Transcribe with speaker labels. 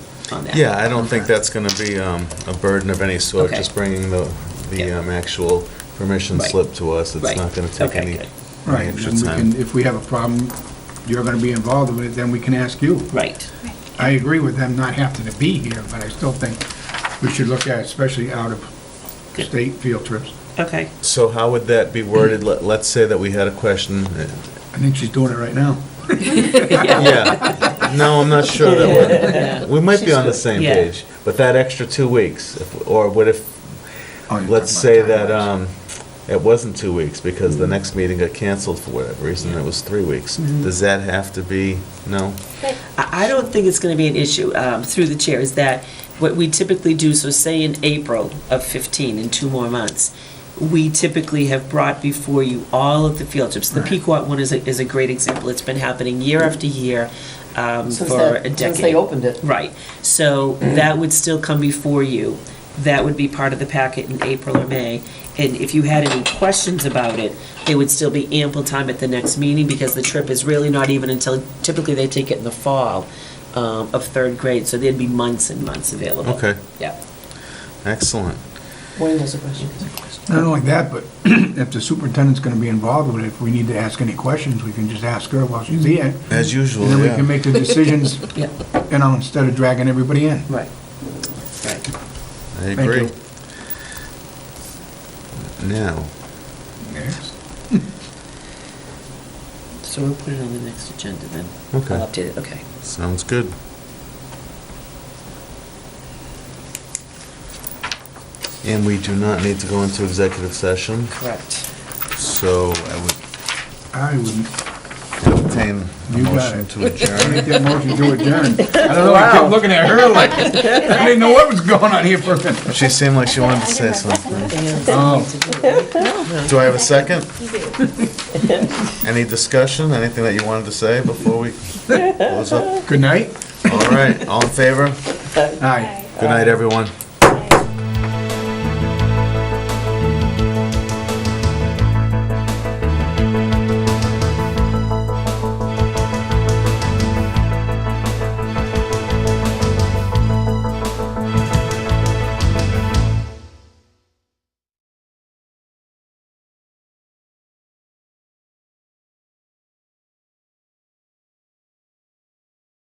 Speaker 1: focused on that.
Speaker 2: Yeah, I don't think that's going to be um, a burden of any sort,
Speaker 1: Okay.
Speaker 2: just bringing the, the
Speaker 1: Yeah.
Speaker 2: um, actual permission
Speaker 1: Right.
Speaker 2: slip to us. It's
Speaker 1: Right.
Speaker 2: not going to take
Speaker 1: Okay,
Speaker 2: any
Speaker 1: good.
Speaker 2: any
Speaker 3: Right, and
Speaker 2: extra
Speaker 3: then we can,
Speaker 2: time.
Speaker 3: if we have a problem, you're gonna be involved with it, then we can ask you.
Speaker 1: Right,
Speaker 3: I agree with them not having to be here, but I still think we should look at, it, especially out of
Speaker 1: Good.
Speaker 3: state field trips.
Speaker 1: okay,
Speaker 2: So how would that be worded? Let- Let's say that we had a question. uh,
Speaker 3: I think she's doing it right now.
Speaker 2: Yeah, no, I'm not sure that we're, we might be on the same
Speaker 1: Yeah.
Speaker 2: page, but that extra two weeks, if- or what if,
Speaker 3: Oh, you're
Speaker 2: let's
Speaker 3: talking
Speaker 2: say
Speaker 3: about
Speaker 2: that
Speaker 3: timelines.
Speaker 2: um, it wasn't two weeks because
Speaker 1: Mm-hmm.
Speaker 2: the next meeting got canceled for whatever reason, it was three weeks. Does that have to be, no?
Speaker 1: I I don't think it's going to be an issue um, through the chair, is that what we typically do, so say in April of 15, in two more months, we typically have brought before you all of the field trips. The
Speaker 3: Right.
Speaker 1: Pequot one is a, is a great example. It's been happening year after year um,
Speaker 4: Since
Speaker 1: for
Speaker 4: that-
Speaker 1: a decade.
Speaker 4: Since they opened it.
Speaker 1: Right, so that would still come before you. That would be part of the packet in April or May. And if you had any questions about it, there would still be ample time at the next meeting because the trip is really not even until, typically they take it in the fall um, of third grade, so there'd be months and months available.
Speaker 2: Okay.
Speaker 1: Yeah.
Speaker 2: Excellent.
Speaker 4: Wayne has a question.
Speaker 3: Not only that, but if the superintendent's gonna be involved with it, if we need to ask any questions, we can just ask her while she's here.
Speaker 1: Mm-hmm.
Speaker 2: As usual,
Speaker 3: And then we
Speaker 2: yeah.
Speaker 3: can make the decisions,
Speaker 1: Yeah,
Speaker 3: you know, instead of dragging everybody in.
Speaker 1: right, right.
Speaker 2: I
Speaker 3: Thank
Speaker 2: agree.
Speaker 3: you.
Speaker 2: Now,
Speaker 3: Yes.
Speaker 1: So we'll put it on the next agenda then.
Speaker 2: Okay.
Speaker 1: I'll update it, okay.
Speaker 2: sounds good. And we do not need to go into executive session,
Speaker 1: Correct.
Speaker 2: so I would
Speaker 3: I wouldn't,
Speaker 2: obtain a
Speaker 3: You got
Speaker 2: motion
Speaker 3: it.
Speaker 2: to
Speaker 3: I
Speaker 2: adjourn.
Speaker 3: make that motion to adjourn. I don't know, I kept looking at her like, I didn't know what was going on here for a minute.
Speaker 2: She seemed like she wanted to say something.
Speaker 3: Oh,
Speaker 2: Do I have a second? Any discussion, anything that you wanted to say before we close up?
Speaker 3: good night?
Speaker 2: All right, all in favor?
Speaker 3: Aye.
Speaker 2: Good night, everyone.